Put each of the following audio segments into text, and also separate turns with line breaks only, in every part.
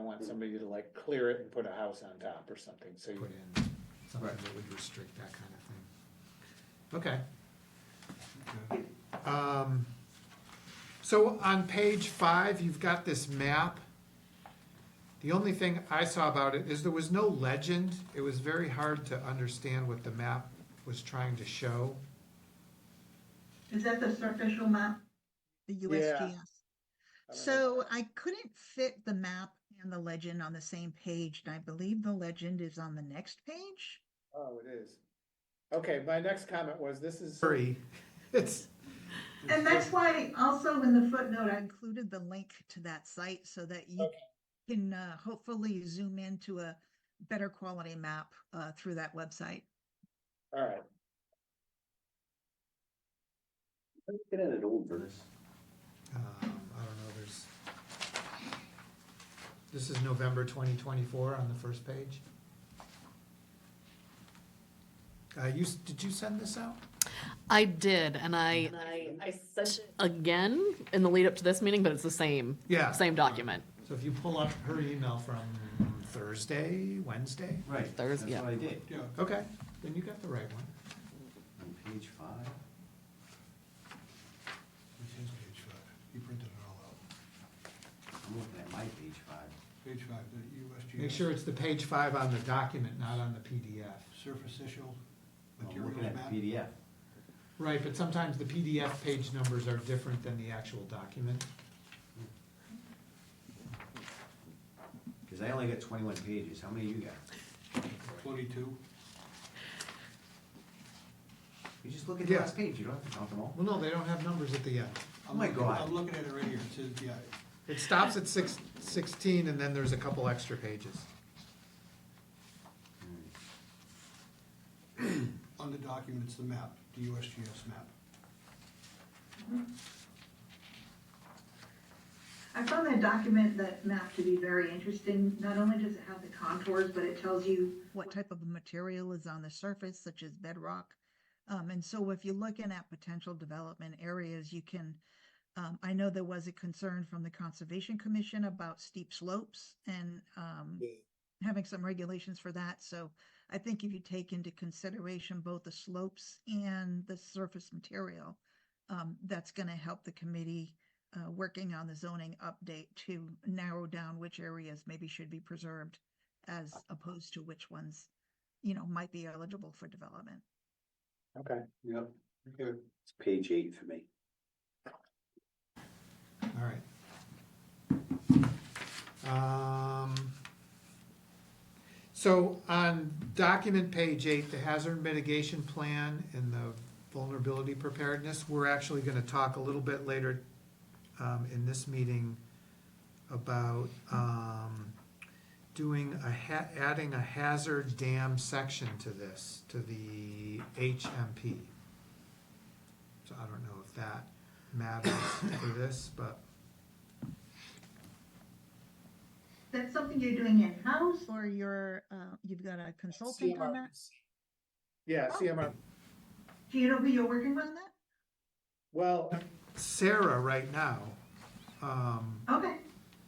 want somebody to like clear it and put a house on top or something, so you
put in something
Right.
that would restrict that kind of thing. Okay. Um, so on page five, you've got this map. The only thing I saw about it is there was no legend. It was very hard to understand what the map was trying to show.
Is that the surficial map?
The
Yeah.
USGS.
I don't know.
So I couldn't fit the map and the legend on the same page, and I believe the legend is on the next page.
Oh, it is. Okay, my next comment was, this is,
Sorry, it's,
And that's why also in the
But
footnote,
I
I,
included the link to that site so that you can uh, hopefully zoom into a better quality map uh, through that website.
alright,
Get at an old verse.
um, I don't know, there's. This is November twenty twenty-four on the first page. Uh, you, s- did you send this out?
I did, and I
I sent it.
again in the lead up to this meeting, but it's the same
Yeah.
same document.
So if you pull up her email from Thursday, Wednesday,
Right,
There's-
that's
yeah.
what I did,
okay, then you got the right one.
on page five.
This is page five. You printed it all out.
I'm looking at my page five.
Page five, the USGS.
Make sure it's the page five on the document, not on the PDF.
Superficial
I'm
materials
looking at
map.
PDF.
Right, but sometimes the PDF page numbers are different than the actual document.
Because I only got twenty-one pages, how many you got?
Twenty-two.
You just look at the
Yeah.
last page, you don't have to count them all.
Well, no, they don't have numbers at the end.
I'm
Oh my
looking-
God.
I'm looking at it right here. It says, yeah,
It stops at six, sixteen, and then there's a couple extra pages.
on the document, it's the map, the USGS map.
I found that document, that map to be very interesting. Not only does it have the contours, but it tells you
what type of material is on the surface, such as bedrock. Um, and so if you're looking at potential development areas, you can, um, I know there was a concern from the Conservation Commission about steep slopes and, um, having some regulations for that. So I think if you take into consideration both the slopes and the surface material, um, that's going to help the committee, uh, working on the zoning update to narrow down which areas maybe should be preserved as opposed to which ones, you know, might be eligible for development.
okay.
Yep.
Here.
It's page eight for me.
All right. Um, So on document page eight, the hazard mitigation plan and the vulnerability preparedness, we're actually gonna talk a little bit later um, in this meeting about um, doing a ha, adding a hazard dam section to this, to the HMP. So I don't know if that matters for this, but
that's something you're doing in-house.
Or you're, uh, you've got a consultant on that,
Yeah, CMR,
Do you know who you're working with?
on that?
well,
Sarah right now. Um,
Okay,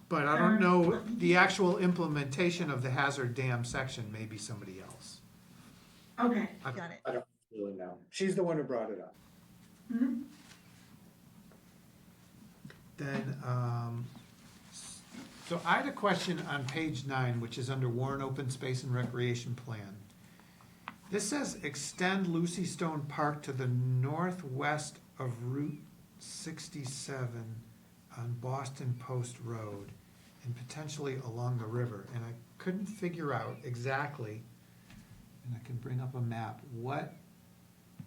but I don't know, the actual implementation of the hazard dam section may be somebody else.
okay.
I-
Got it.
I don't really know, she's the one who brought it up.
Mhm.
Then, um, so I had a question on page nine, which is under Warren Open Space and Recreation Plan. This says extend Lucy Stone Park to the northwest of Route sixty-seven on Boston Post Road and potentially along the river, and I couldn't figure out exactly, and I can bring up a map, what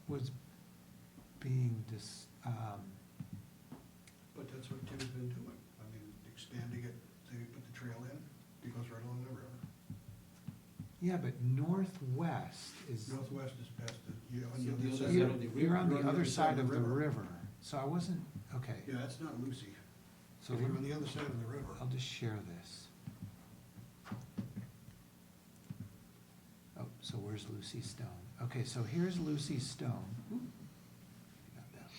was being dis, um,
But that's what Tim's been doing. I mean, expanding it, they put the trail in, it goes right along the river.
Yeah, but northwest is,
Northwest is past the, you on
So
the other
the
side.
other-
you're,
of the river-
you're on the other side of the river, so I wasn't, okay.
Yeah, that's not Lucy.
So
If you're on
we're-
the other side of the river.
I'll just share this. Oh, so where's Lucy Stone? Okay, so here's Lucy Stone. Oop, not that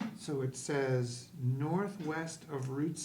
much. So it says northwest of Route